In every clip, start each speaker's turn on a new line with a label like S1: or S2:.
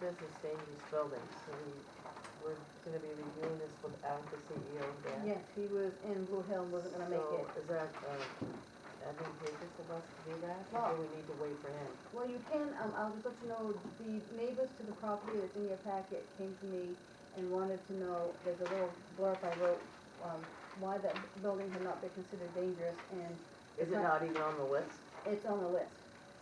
S1: business dangerous buildings, so we, we're gonna be reviewing this without the E CEO there.
S2: Yes, he was in Blue Hill, and wasn't gonna make it.
S1: So is that, uh, advantageous of us to do that, or do we need to wait for him?
S2: Well, you can, um, I'll just let you know, the neighbors to the property that's in your packet came to me and wanted to know, there's a little blurb I wrote, um, why that building had not been considered dangerous, and
S1: Is it not even on the list?
S2: it's on the list.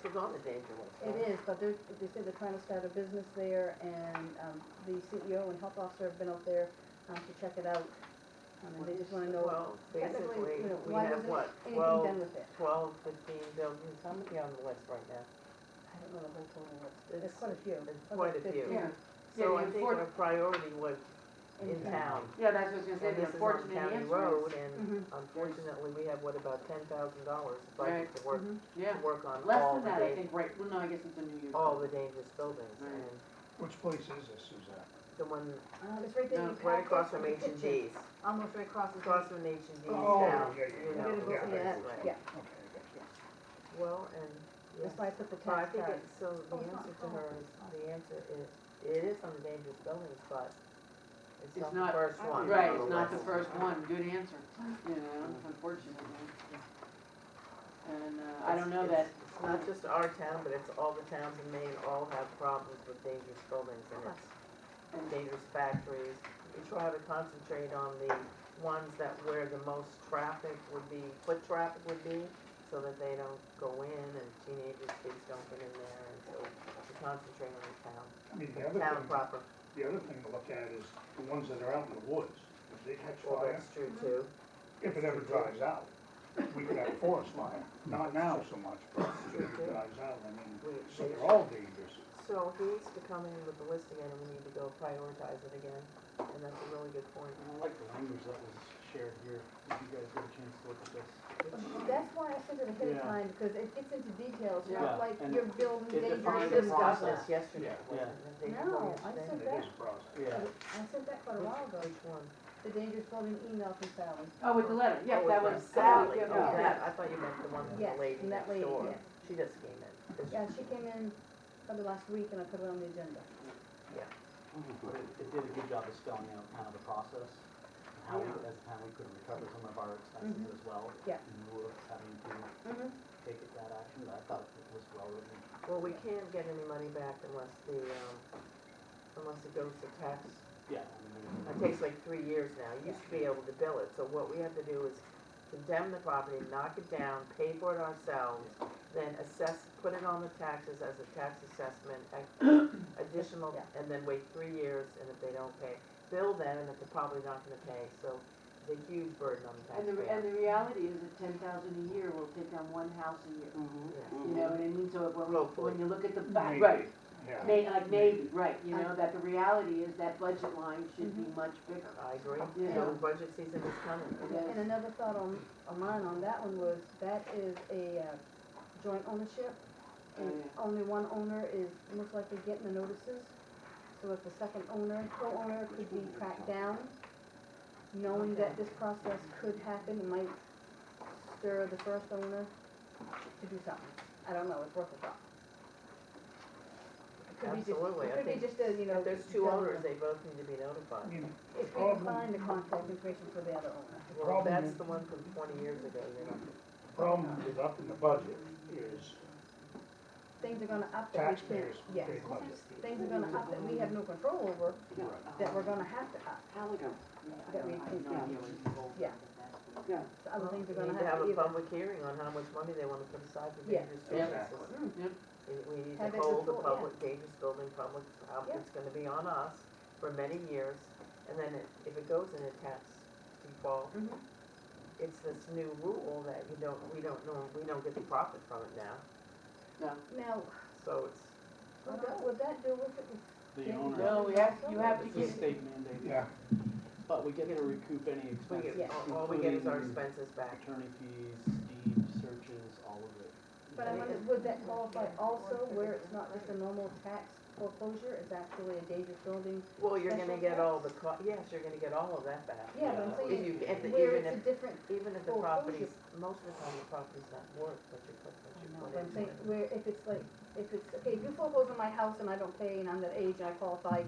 S1: It's on the danger list.
S2: It is, but they're, they said they're trying to start a business there, and, um, the CEO and health officer have been out there, um, to check it out. Um, and they just wanna know
S1: Well,
S2: technically,
S1: basically,
S2: you know,
S1: we
S2: why
S1: have
S2: wasn't
S1: what,
S2: anything
S1: twelve,
S2: done with it.
S1: twelve, fifteen buildings, how many on the list right now?
S2: I don't know the whole total list, there's
S1: It's-
S2: quite a few.
S1: it's
S2: about
S1: quite a few.
S2: 15
S3: Yeah,
S1: So
S3: Yeah,
S1: I
S3: the
S1: think
S3: afford-
S1: our priority was in
S2: town. Mm-hmm.
S1: town.
S3: yeah, that's what I was gonna
S1: And
S3: say, the
S1: this is on
S3: unfortunate
S1: county
S3: answer
S1: road,
S3: is,
S1: and unfortunately, we have, what, about ten thousand dollars budget
S3: Right.
S1: to work,
S2: Mhm.
S3: yeah,
S1: to work on
S3: less
S1: all
S3: than
S1: the
S3: that, I
S1: dan-
S3: think, right, well, no, I guess it's a New Year's.
S1: all
S3: one.
S1: the dangerous buildings,
S3: Right.
S1: and
S4: Which place is this, Suzanne?
S1: the one
S2: Um, it's right there in your
S1: right
S2: packet.
S1: across from H
S2: It's a
S1: and
S2: picture.
S1: G's,
S2: Almost right across the
S1: across from H and G's
S4: Oh,
S1: down,
S4: yeah, yeah,
S1: you
S4: yeah.
S1: know.
S2: We're gonna go
S1: yeah,
S2: see that,
S1: that's right.
S2: yeah.
S4: Okay, I got you.
S1: Well, and, yes.
S2: That's why I put the
S1: So I
S2: tax
S1: think
S2: card.
S1: it, so the
S2: Oh, it's
S1: answer
S2: not
S1: to
S2: called.
S1: her is, the answer is, it is on the dangerous buildings, but it's
S3: It's
S1: not the
S3: not-
S1: first
S2: I
S1: one.
S2: don't
S3: Right,
S1: on
S3: it's not the
S1: list.
S3: first one, good answer, you know, unfortunately. And, uh, I don't know that,
S1: It's- It's not just our town, but it's all the towns in Maine all have problems with dangerous buildings and it's and dangerous factories. We try to concentrate on the ones that where the most traffic would be, foot traffic would be, so that they don't go in and teenagers, kids don't get in there and so we concentrate on the town,
S4: I mean, the other
S1: town
S4: thing,
S1: proper.
S4: the other thing to look at is the ones that are out in the woods. If they catch
S1: Well,
S4: fire,
S1: that's true
S3: Mm-hmm.
S1: too.
S4: if it ever dries out, we could have a forest fire. Not now so much, but if it
S1: Okay.
S4: dries out, I mean,
S1: We,
S4: so
S1: they
S4: they're all dangerous.
S1: So he needs to come in with the list again, and we need to go prioritize it again, and that's a really good point.
S5: And I like the language that was shared here, if you guys get a chance to look at this.
S2: That's why I sent it ahead of
S5: Yeah.
S2: time, because it gets into details,
S5: Yeah,
S2: not like
S5: and
S2: you're building dangerous
S5: it
S1: We
S5: defines the
S2: and
S1: discussed
S2: stuff.
S5: process.
S1: this yesterday,
S5: Yeah,
S1: wasn't it? They
S2: No,
S1: told me
S2: I
S1: today.
S4: It
S2: said-
S4: is a process.
S5: Yeah,
S2: I sent that quite a while ago,
S1: Which one?
S2: the dangerous building email from Sally.
S3: oh, with the letter, yeah,
S1: Oh,
S3: that
S1: it's
S3: was.
S1: from Sally, oh,
S3: yeah, yeah.
S1: that, I thought you meant the one from
S2: Yes,
S1: the lady
S2: from that
S1: next
S2: lady,
S1: door.
S2: yes.
S1: She just came in.
S2: Yeah, she came in probably last week and I put it on the agenda.
S5: but it, it did a good job of spelling out kind of the process, and how we, as a town, we could recover some of our expenses as well.
S2: Mm-hmm. Yeah.
S5: In lieu of having to
S2: Mm-hmm.
S5: take it that action, but I thought it was well written.
S1: Well, we can't get any money back unless the, um, unless it goes to tax.
S5: Yeah. I mean,
S1: It takes like three years now. You used to be able to bill it, so what we have to do is condemn the property, knock it down, pay for it ourselves, then assess, put it on the taxes as a tax assessment, a- additional,
S2: Yeah.
S1: and then wait three years, and if they don't pay, bill them, and if they're probably not gonna pay, so it's a huge burden on the
S3: And the,
S1: taxpayer.
S3: and the reality is that ten thousand a year will take on one house a year,
S1: Yeah.
S3: you know what I mean, so when, we- when you look at the, back,
S4: Maybe,
S3: right,
S4: Yeah.
S3: may, like maybe, right, you know, that the reality is that budget line should
S1: Mm-hmm.
S3: be much bigger.
S1: I agree.
S3: Yeah.
S1: So budget season is coming.
S2: And another thought on, on mine on that one was, that is a uh, joint ownership. And
S3: Oh, yeah.
S2: only one owner is most likely getting the notices. So if the second owner, co-owner could be tracked down, knowing that this process could happen, it might stir the first owner to do something. I don't know, it's worth a thought. It could be just-
S1: Absolutely, I
S2: It could
S1: think
S2: be just a, you know.
S1: If there's two
S2: done-
S1: owners, they both need to be
S4: I
S1: notified.
S4: mean,
S2: If we can find the contact information for the other owner.
S4: the
S1: Well,
S4: problem
S1: that's
S4: is-
S1: the one from twenty years ago, you know.
S4: the problem with upping the budget is
S2: Things are gonna up that we can't,
S4: taxpayers
S2: yes.
S4: pay budget.
S2: Things are gonna up that we have no control over,
S6: Yeah,
S2: that we're gonna have to up.
S6: Halligan,
S2: That we can- yeah.
S6: yeah.
S2: So other things are
S1: We
S2: gonna
S1: need to
S2: have to
S1: have a
S2: either.
S1: public hearing on how much money they wanna put aside for
S2: Yeah.
S1: dangerous
S4: Yeah.
S1: businesses.
S3: Yep.
S1: We- We need to
S2: Have it
S1: hold the
S2: before, yeah.
S1: public, dangerous building public, how
S2: Yeah.
S1: it's gonna be on us for many years. And then it- if it goes in a tax default,
S2: Mhm.
S1: it's this new rule that you don't, we don't know, we don't get the profit from it now.
S2: Now,
S1: So it's,
S2: would that, would that do with it?
S5: The
S2: Yeah.
S5: owner,
S3: No, we have, you have to
S5: it's a
S3: get,
S5: state mandate,
S4: Yeah,
S5: but we get to recoup any
S1: we
S5: expenses,
S1: get, all- all we get is our
S5: Including-
S1: expenses back.
S5: attorney fees, deed searches, all of it.
S2: But I wonder, would that qualify also where it's not just a normal tax foreclosure is actually a dangerous building.
S1: Well, you're gonna
S2: Special
S1: get all the,
S2: tax?
S1: co- yes, you're gonna get all of that back.
S2: Yeah, but I'm
S5: Yeah.
S1: If
S2: saying,
S1: you, if, the-
S2: where
S1: even
S2: it's
S1: if,
S2: a different,
S1: even if the
S2: Well,
S1: property's, most of the time the property's not worth what you put, what you
S2: no,
S1: put
S2: but I'm
S1: into
S2: saying,
S1: it.
S2: where if it's like, if it's, okay, if you foreclose on my house and I don't pay and I'm that age and I qualify,